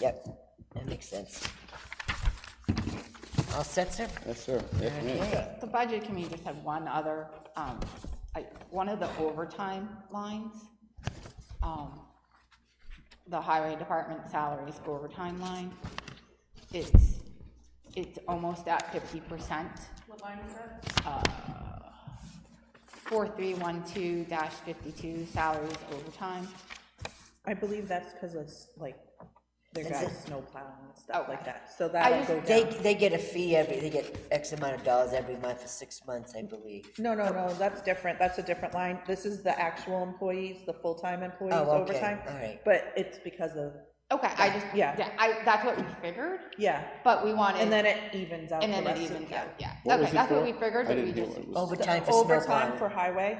Yep, that makes sense. All set, sir? Yes, sir. Yes, ma'am. Okay. The budget committee just had one other, um, I- one of the overtime lines. um, The highway department salaries overtime line. It's, it's almost at fifty percent. What Uh, line is that? 4312-52 salaries overtime. I believe that's because it's like, their Is guys it- snowplow and stuff Okay. like that, so just- that'll go They, down. they get a fee every, they get X amount of dollars every month for six months, I believe. No, no, no, that's different, that's a different line, this is the actual employees, the full-time employees okay, overtime. all right. But it's because of, Okay, I just, Yeah. yeah, I, that's what we figured, yeah, but we wanted. and then it evens out the And rest then of, it evens yeah. out, yeah. What was Okay, it that's for? what we figured, I but we didn't hear just, what it was. Overtime for Overtime for snowplowing. highway,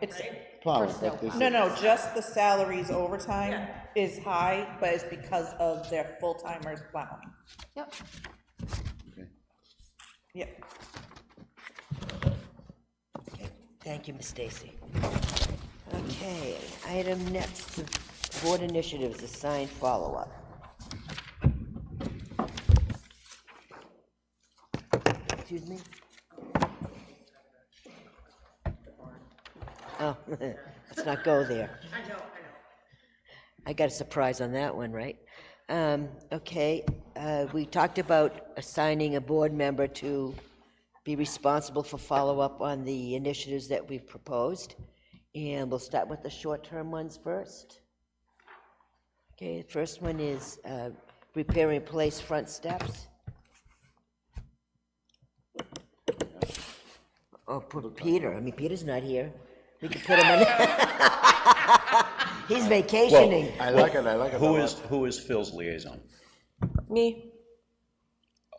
it's, Plowing, snow but this no, is, no, just the salaries overtime is high, but it's because of their full-timers plowing. yep, Yeah, Okay, Thank you, Ms. Stacy. Okay, item next, the board initiatives, assigned follow-up. Excuse me? Oh, let's not go there. I know, I know. I got a surprise on that one, right? Um, Okay, uh, we talked about assigning a board member to be responsible for follow-up on the initiatives that we've proposed, and we'll start with the short-term ones first. Okay, the first one is uh, repair and replace front steps. Oh, put Peter, I mean, Peter's not here. We could put him in. He's vacationing. I like it, I like it. Who is, who is Phil's liaison? Me.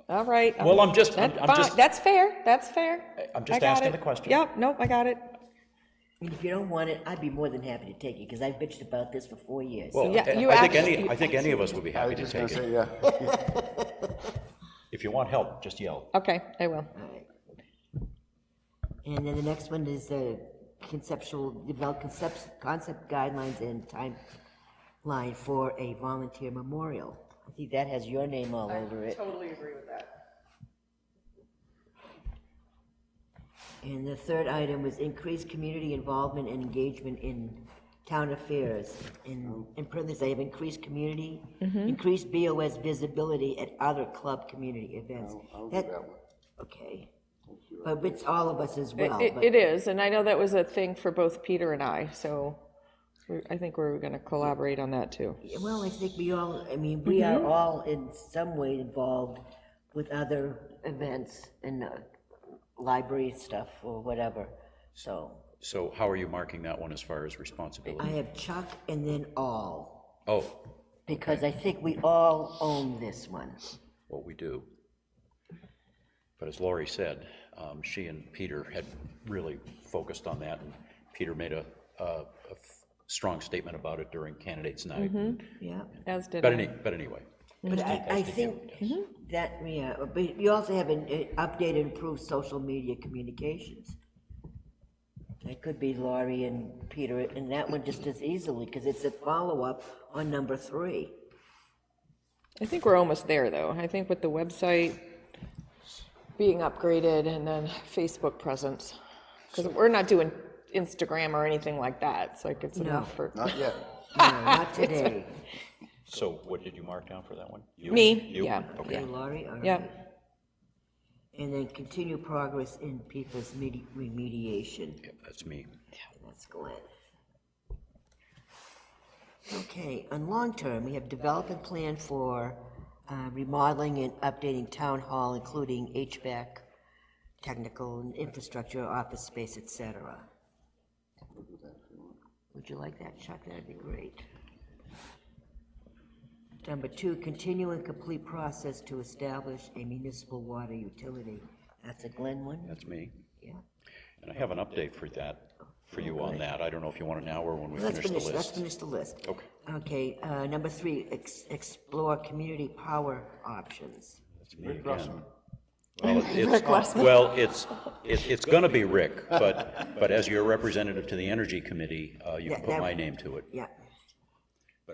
All right. Well, I'm just- I'm- That's I'm fine. just- That's fair, that's fair. I'm just I got asking it. the question. Yep, nope, I got it. I mean, If you don't want it, I'd be more than happy to take it, because I've bitched about this for four years. Well, Yeah, you I think any, actually- I think any of us would be I happy was to just gonna take it. say, yeah. If you want help, just yell. Okay, I will. And then the next one is the conceptual, develop concepts, concept guidelines and timeline for a volunteer memorial. I think that has your name all over it. totally agree with that. And the third item was increase community involvement and engagement in town affairs. In, in parentheses, I have increased community, Mm-hmm. increased BOS visibility at other club community events. that one. Okay. But it's all of us as well. It, but- it is, and I know that was a thing for both Peter and I, so we- I think we're gonna collaborate on that too. Well, I think we all, I mean, we are all in some way involved with other events and uh, library stuff or whatever. So So how are you marking that one as far as I responsibility? have Chuck and then all, Oh, because I think we all own this one. well, we do. But as Lori said, um, she and Peter had really focused on that, and Peter made a, a, a f- strong statement about it during candidates night. Mm-hmm. Yeah. As did But I. any, but anyway, But I, I think that, yeah, but you also have an uh, updated, improved social media communications. It could be Laurie and Peter, and that one just as easily, because it's a follow-up on number three. I think we're almost there, though. I think with the website being upgraded and then Facebook presence, because we're not doing Instagram or anything like that, it's like it's enough for. Not yet. No, not today. so what did you mark down for that one? You? Me, You? yeah, Okay. Okay, Laurie, all right. Yeah. And then continue progress in PFAS medi- remediation. Yeah, That's me. That's Glenn. Okay, on long term, we have development plan for uh, remodeling and updating town hall, including HVAC, technical and infrastructure, office space, et cetera. Would you like that, Chuck? That'd be great. Number two, continue and complete process to establish a municipal water utility. That's a Glenn one? That's me. Yeah. And I have an update for that, for you on that. I don't know if you want it now or when we Let's finish the finish, let's list. finish the list. Okay, Okay, uh, number three, ex- explore community power options. that's me again. Well, it's, well, it's, it- it's going to be Rick, but, but as your representative to the Energy Committee, uh, you Yeah, can put that- my name to it. Yeah,